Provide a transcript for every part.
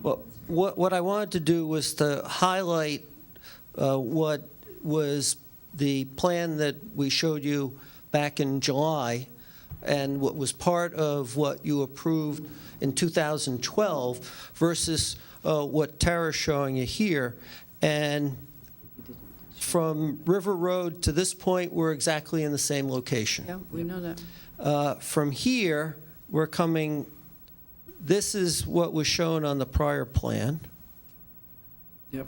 what, what I wanted to do was to highlight uh, what was the plan that we showed you back in July, and what was part of what you approved in 2012 versus uh, what Tara's showing you here. And from River Road to this point, we're exactly in the same location. Yeah, we know that. Uh, From here, we're coming, this is what was shown on the prior plan. Yep.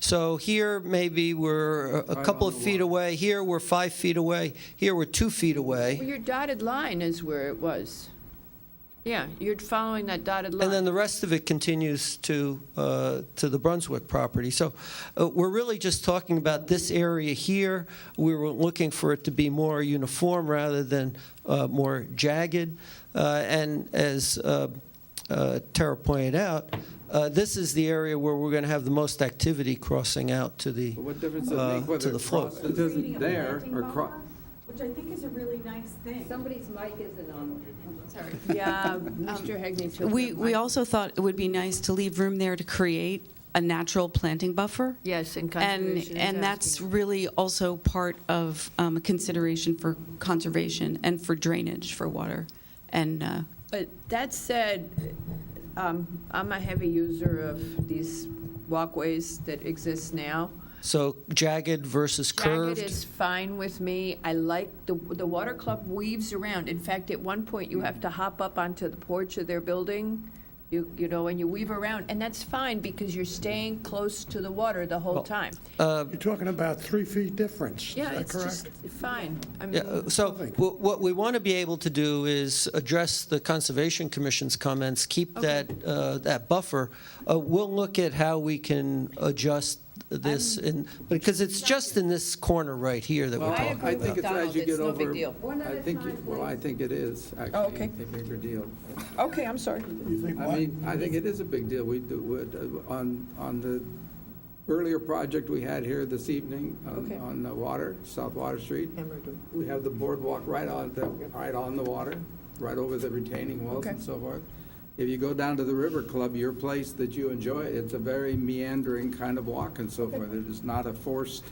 So here, maybe we're a- a Right couple on of the feet away, here, we're five feet away, here, we're two feet Well, away. your dotted line is where it was. Yeah, you're following that dotted line. And then the rest of it continues to, uh, to the Brunswick property. So uh, we're really just talking about this area here. We were looking for it to be more uniform rather than uh, more jagged. Uh, And as uh, uh, Tara pointed out, uh, this is the area where we're going to have the most activity crossing out to the, But what difference does Uh, it make to whether the it float. crosses there Creating a or planting cro, buffer, Which I think is a really nice thing. Somebody's mic isn't on. Sorry. Yeah, um, Mr. Hegney took. We, that we mic. also thought it would be nice to leave room there to create a natural planting buffer. Yes, and And, conservation. is and that's asking. really also part of um, a consideration for conservation and for drainage for water. And uh, But that said, um, I'm a heavy user of these walkways that exist now. so jagged versus curved. Jagged is fine with me. I like, the, the water club weaves around. In fact, at one point, you have to hop up onto the porch of their building, you, you know, and you weave around. And that's fine because you're staying close to the water the whole time. uh, You're talking about three feet difference, is Yeah, that it's correct? just fine. I Yeah, mean, uh, so wh- what we want to be able to do is address the Conservation Commission's comments, keep that, uh, that buffer. Uh, We'll look at how we can adjust this, in because it's just in this corner right here that we're Well, talking I think it's as you get Donald, it's no over. big deal. One I at a think, time, it- well, I please. think it is, Oh, actually, okay. a bigger deal. uh, okay, I'm sorry. You think I what? mean, I think it is a big deal. We, do- would, uh, on, on the earlier project we had here this evening on, Okay. on the water, South Water Street, we have the boardwalk right on, the- right on the water, right over the retaining walls and Okay. so forth. If you go down to the River Club, your place that you enjoy, it's a very meandering kind of walk and so forth. It is not a forced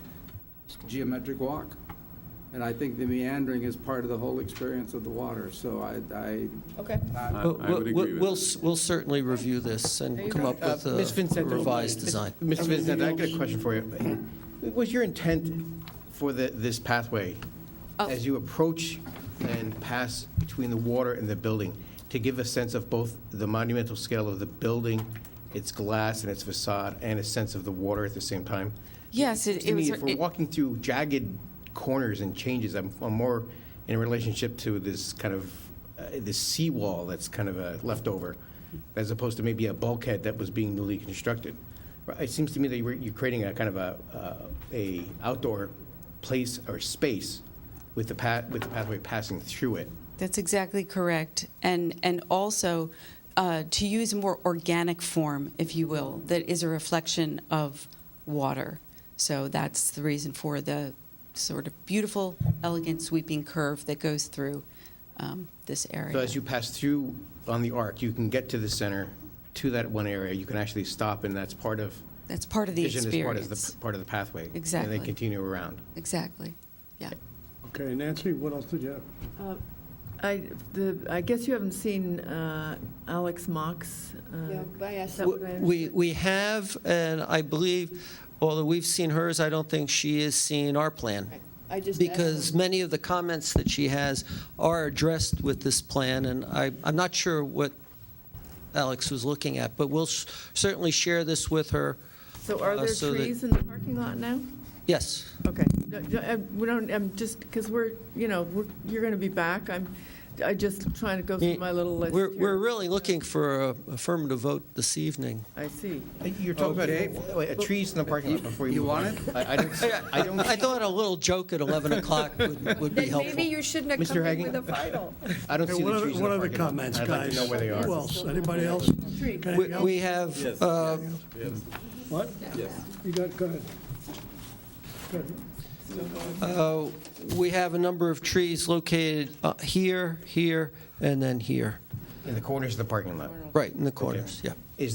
geometric walk. And I think the meandering is part of the whole experience of the water, so I, I, Okay. I about. I would We'll- agree We'll, with s- we'll certainly review this and come up with Uh, Ms. a Vincent, revised design. Mr. Vincent, I got a question for you. What was your intent for the, this pathway? As you approach and pass between the water and the building, to give a sense of both the monumental scale of the building, its glass and its facade, and a sense of the water at the same time? yes, it To it was. me, if we're it- walking through jagged corners and changes, I'm I'm more in a relationship to this kind of, uh, this seawall that's kind of a leftover, as opposed to maybe a bulkhead that was being newly constructed. Right, It seems to me that you're you're creating a kind of a, uh, a outdoor place or space with the path, with the pathway passing through it. That's exactly correct. And, and also, uh, to use a more organic form, if you will, that is a reflection of water. So that's the reason for the sort of beautiful, elegant, sweeping curve that goes through um, this area. So as you pass through on the arc, you can get to the center, to that one area, you can actually stop, and that's part of. That's part of the vision is part of the- experience. Part of the pathway. And Exactly. then continue around. Exactly, yeah. Okay, Nancy, what else did you have? I, the, I guess you haven't seen uh, Alex Mock's. uh, W- We, we have, and I believe, although we've seen hers, I don't think she has seen our plan. I just asked because them- many of the comments that she has are addressed with this plan, and I, I'm not sure what Alex was looking at, but we'll s- certainly share this with her. So are uh, there so that- trees in the parking lot now? Yes, Okay. No, no, I- We don't, I'm just, because we're, you know, we're- you're going to be back. I'm, i just trying to go through my little list we're, we're here. really looking for a affirmative vote this evening. I see. You're talking Okay. about wait, uh, trees in the parking lot before you You move on. want I I don't, I don't. I thought a little joke at 11 o'clock would would be Then helpful. maybe you shouldn't have Mr. come in Hagan? with a final. I don't Okay, see what the other- trees in what the other parking lot. comments, I'd guys? like to know where they Who are. else? Anybody else? We- Anything else? We have, uh, What? yes. You got, go ahead. Go ahead. uh, we have a number of trees located uh, here, here, and then here, In the corners of the parking lot. right in the corners, yeah. Is there